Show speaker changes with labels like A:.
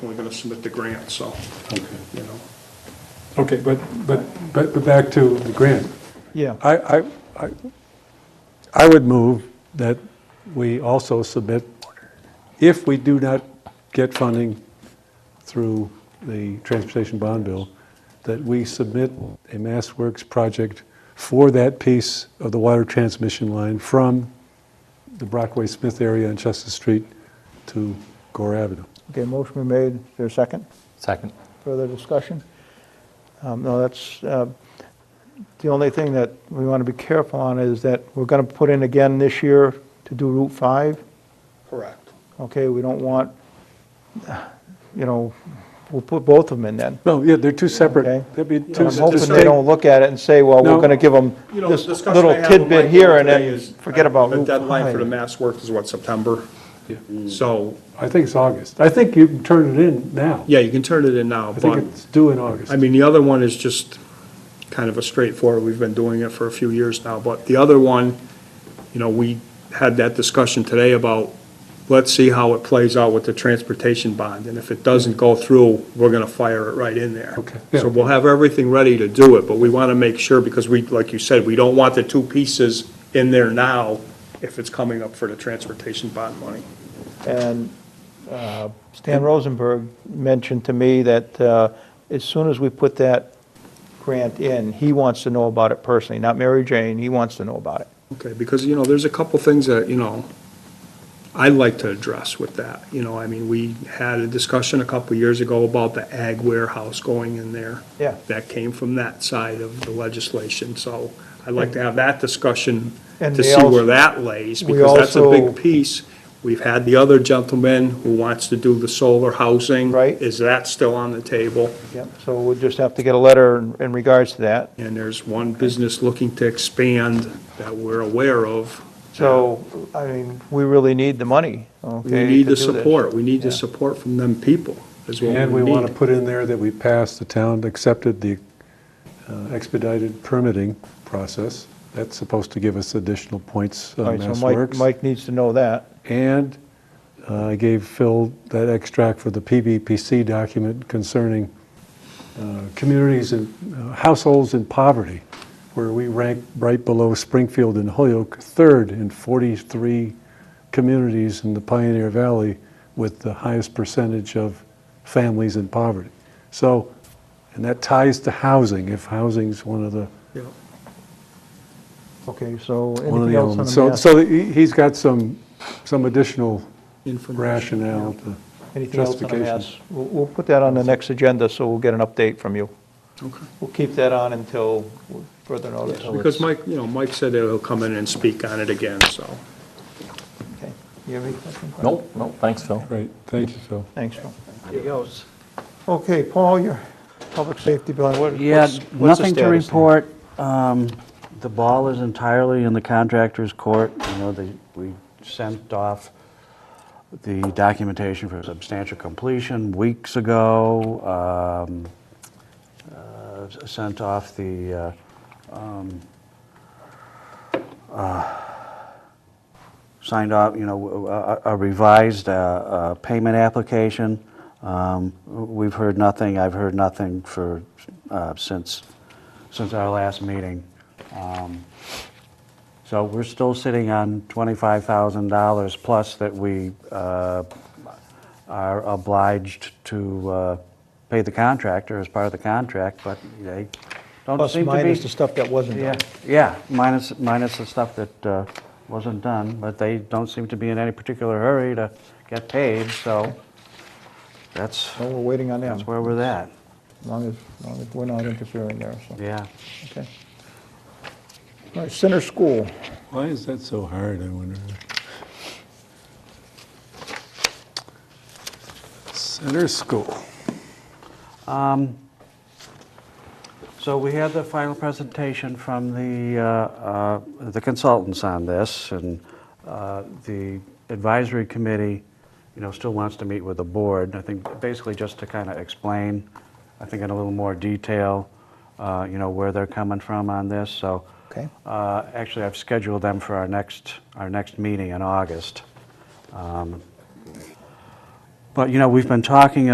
A: we're gonna submit the grant, so,
B: Okay,
A: you know.
B: Okay, but, but, but but back to the grant.
C: Yeah,
B: I, I, I- I would move that we also submit, if we do not get funding through the transportation bond bill, that we submit a Mass Works project for that piece of the water transmission line from the Brockway Smith area on Chester Street to Gore Avenue.
C: okay, motion been made, is there a second?
D: Second.
C: Further discussion? Um, No, that's, uh, the only thing that we want to be careful on is that we're going to put in again this year to do Route 5.
A: Correct.
C: Okay, we don't want, you know, we'll put both of them in then.
B: No, yeah, they're two
C: Okay.
B: separate, that'd be
C: I'm
B: two
C: hoping they
B: distinct-
C: don't look at it and say, well, we're
B: No.
C: going to give them
A: You know, the
C: this
A: discussion I
C: little
A: had with
C: tidbit
A: Michael
C: here and
A: today
C: then
A: is,
C: forget
A: uh,
C: about Route 5.
A: The deadline for the Mass Works is what, September?
B: Yeah.
A: So,
B: I think it's August. I think you can turn it in now.
A: yeah, you can turn it in now,
B: I think
A: but,
B: it's due in August.
A: I mean, the other one is just kind of a straightforward, we've been doing it for a few years now, but the other one, you know, we had that discussion today about, let's see how it plays out with the transportation bond, and if it doesn't go through, we're gonna fire it right in there.
B: Okay.
A: So we'll have everything ready to do it, but we wanna make sure, because we, like you said, we don't want the two pieces in there now if it's coming up for the transportation bond money.
C: And uh, Stan Rosenberg mentioned to me that uh, as soon as we put that grant in, he wants to know about it personally, not Mary Jane, he wants to know about it.
A: Okay, because, you know, there's a couple things that, you know, I'd like to address with that. You know, I mean, we had a discussion a couple years ago about the ag warehouse going in there.
C: Yeah.
A: That came from that side of the legislation, so I'd like to have that discussion
C: And
A: to
C: they
A: see where
C: also-
A: that lays,
C: we
A: because that's a big
C: also-
A: piece. We've had the other gentleman who wants to do the solar housing.
C: Right.
A: Is that still on the table?
C: Yep. So we'll just have to get a letter in- in regards to that.
A: And there's one business looking to expand that we're aware of.
C: So, I mean, we really need the money,
A: We
C: okay?
A: need
C: to
A: the
C: do this.
A: support, we need the
C: Yeah.
A: support from them people, is what
B: And we
A: we
B: want to
A: need.
B: put in there that we passed, the town accepted the uh, expedited permitting process. That's supposed to give us additional points
C: All
B: on
C: right,
B: Mass
C: so Mike,
B: Works.
C: Mike needs to know that.
B: And uh, I gave Phil that extract for the PBPC document concerning uh, communities and uh, households in poverty, where we rank right below Springfield and Holyoke, third in 43 communities in the Pioneer Valley with the highest percentage of families in poverty. So, and that ties to housing, if housing's one of the,
A: Yeah.
C: Okay, so
B: one of
C: anything
B: the
C: else on
B: elements.
C: the
B: So,
C: mass?
B: so he- he's got some, some additional
A: Information.
B: rationale to.
C: Anything else on the
B: justification.
C: mass? We'll, we'll put that on the next agenda, so we'll get an update from you.
A: Okay.
C: We'll keep that on until further notice.
A: Because Mike, you know, Mike said that he'll come in and speak on it again, so.
C: Okay. You have any questions?
D: Nope, nope, thanks, Phil.
B: Great, thank you, Phil.
C: Thanks, Phil. There he goes. Okay, Paul, your public safety building, what-
E: Yeah,
C: what's, what's the
E: nothing to
C: status there?
E: report. Um, The ball is entirely in the contractor's court. You know, they- we sent off the documentation for substantial completion weeks ago, um, uh, s- sent off the uh, signed off, you know, a- a a revised uh, uh, payment application. Um, We've heard nothing, I've heard nothing for, uh, since, since our last meeting. Um, So we're still sitting on $25,000 plus that we uh, are obliged to uh, pay the contractor as part of the contract, but they don't
C: Plus
E: seem to be...
C: minus the stuff that wasn't
E: Yeah,
C: done.
E: yeah, minus, minus the stuff that uh, wasn't done, but they don't seem to be in any particular hurry to get paid, so that's,
C: Well, we're waiting on them,
E: that's
C: as
E: where we're at,
C: long as, as long as we're not interfering there, so,
E: yeah.
C: okay. All right, Center School,
B: Why is that so hard, I wonder? Center School.
E: Um, So we had the final presentation from the uh, uh, the consultants on this, and uh, the advisory committee, you know, still wants to meet with the board. I think basically just to kind of explain, I think in a little more detail, uh, you know, where they're coming from on this, so.
C: Okay.
E: uh, Actually, I've scheduled them for our next, our next meeting in August. Um, But, you know, we've been talking